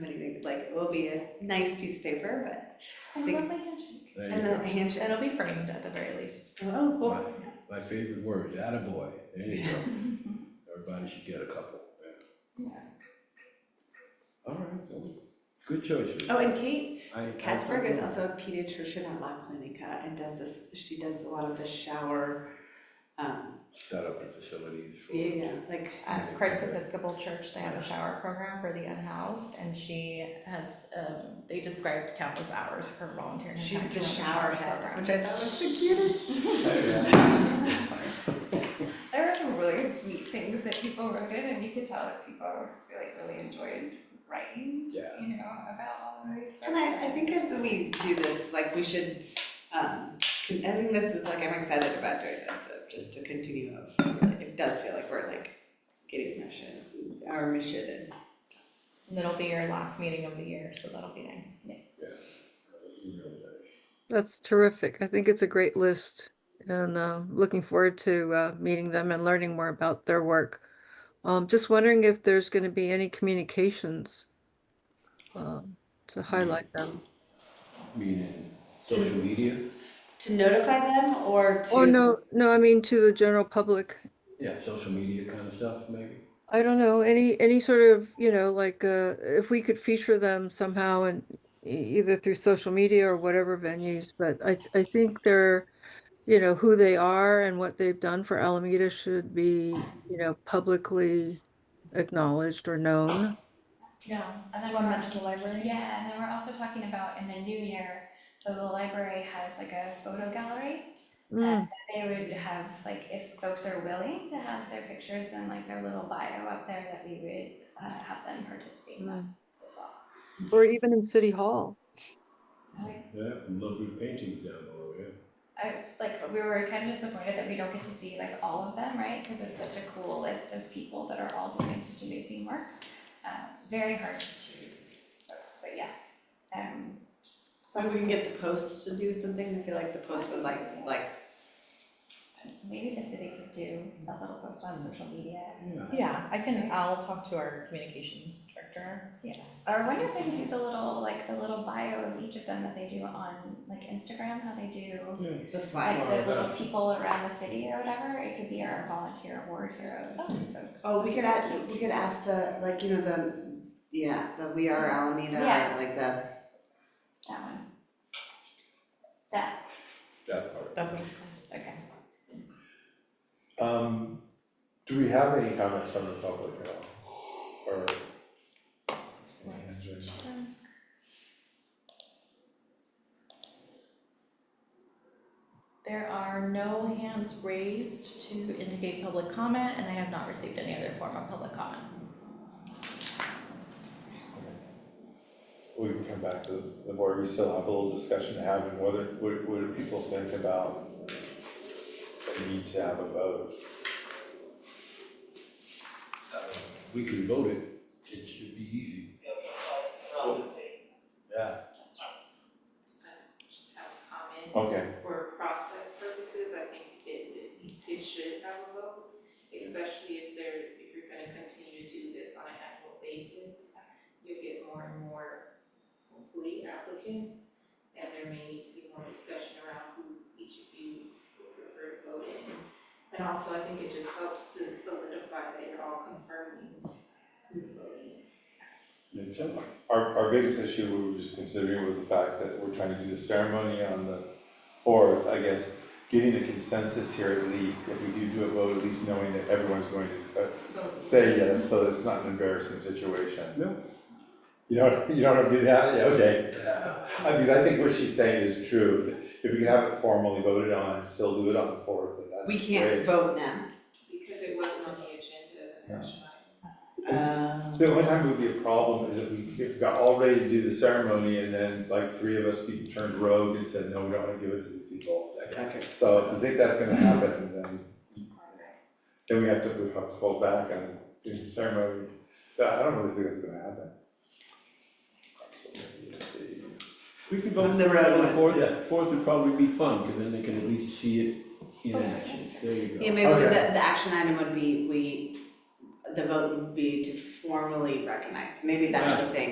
like it will be a nice piece of paper, but, I Big- love my handshake. There you and go. then a handshake, It'll be framed at the very least. oh, cool. My, my favorite word, attaboy, there you go. Everybody should get a couple. Yeah. All right, well, good choice. Ruth. Oh, and Kate I- I- Katzberg is also a pediatrician at La Clinica and does this, she does a lot of the shower, um, Set up the facilities for. yeah, like, At Christ Episcopal Church, they have a shower program for the unhoused, and she has, um, they described countless hours of her volunteering. she's time the during shower head, program. which I thought was the cutest. There were some really sweet things that people wrote in, and you could tell that people really, really enjoyed writing, Yeah. you know, about all of these. And I, I think as we do this, like, we should, um, con- I think this is like, I'm excited about doing this, so just to continue of, it does feel like we're like getting mission, our mission and And It'll be your last meeting of the year, so that'll be nice. Really nice. That's terrific. I think it's a great list and uh, looking forward to uh, meeting them and learning more about their work. Um, just wondering if there's going to be any communications um, to highlight them. Meaning social media? to notify them or to. Or Oh, no, no, I mean to the general public. Yeah, social media kind of stuff, maybe? I don't know, any any sort of, you know, like uh, if we could feature them somehow and e- either through social media or whatever venues, but I th- I think they're, you know, who they are and what they've done for Alameda should be, you know, publicly acknowledged or known. Yeah, And Do then you wanna we're- mention the library? Yeah, and then we're also talking about in the new year, so the library has like a photo gallery. Mm, They would have, like, if folks are willing to have their pictures and like their little bio up there, that we would uh have them participate in that as well. Mm, Or even in City Hall. Okay. Yeah, some lovely paintings down below, yeah. I was like, we were kind of disappointed that we don't get to see like all of them, right? Because it's such a cool list of people that are all doing such amazing work. Uh, very hard to choose folks, but yeah. Um, So we can get the post to do something, I feel like the post would like, like, maybe the city could do a little post on social media. Yeah. Yeah, I can, I'll talk to our communications director. Or I wonder if they could do the little, like the little bio of each of them that they do on like Instagram, how they do Yeah. the like slide. the little people around the city or whatever. It could be our volunteer award hero folks. Oh, we could add, we could ask the, like, you know, the, yeah, the We Are Alameda, Yeah. or like the, That one. That, That part. That's what it's called. okay. Um, do we have any comments from the public at all? Or? any Let's answers? There are no hands raised to indicate public comment, and I have not received any other form of public comment. We can come back to the board, we still have a little discussion to have, and whether, what, what do people think about the need to have a vote? Uh, We can vote it, it should be easy. Yeah, just have comments. Okay. For process purposes, I think it, it- it should have a vote, especially if they're, if you're gonna continue to do this on an annual basis. You'll get more and more, hopefully, applicants, and there may need to be more discussion around who each of you would prefer to vote in. And also, I think it just helps to solidify that you're all confirming who you're voting in. makes sense. Our, our biggest issue we were just considering was the fact that we're trying to do the ceremony on the fourth, I guess, getting a consensus here at least, if we do do a vote, at least knowing that everyone's going to, uh, say yes, so it's not an embarrassing situation. No. You don't, you don't do that, yeah, okay. Yeah. I mean, I think what she's saying is true, if we can have it formally voted on and still do it on the fourth, then that's we great. can't vote now. Because it wasn't on the agenda as an action item. Uh, So the only time it would be a problem is if we, if we got all ready to do the ceremony and then like three of us people turned rogue and said, no, we don't wanna give it to these people. gotcha. So if we think that's gonna happen, then, then we have to, we have to hold back on doing the ceremony, but I don't really think that's gonna happen. So, let's see. We can vote On for the it on the road. Yeah. fourth, fourth would probably be fun, because then they can at least see it in action, there you Yeah, go. maybe the, Okay. the action item would be, we, the vote would be to formally recognize, maybe that's the thing,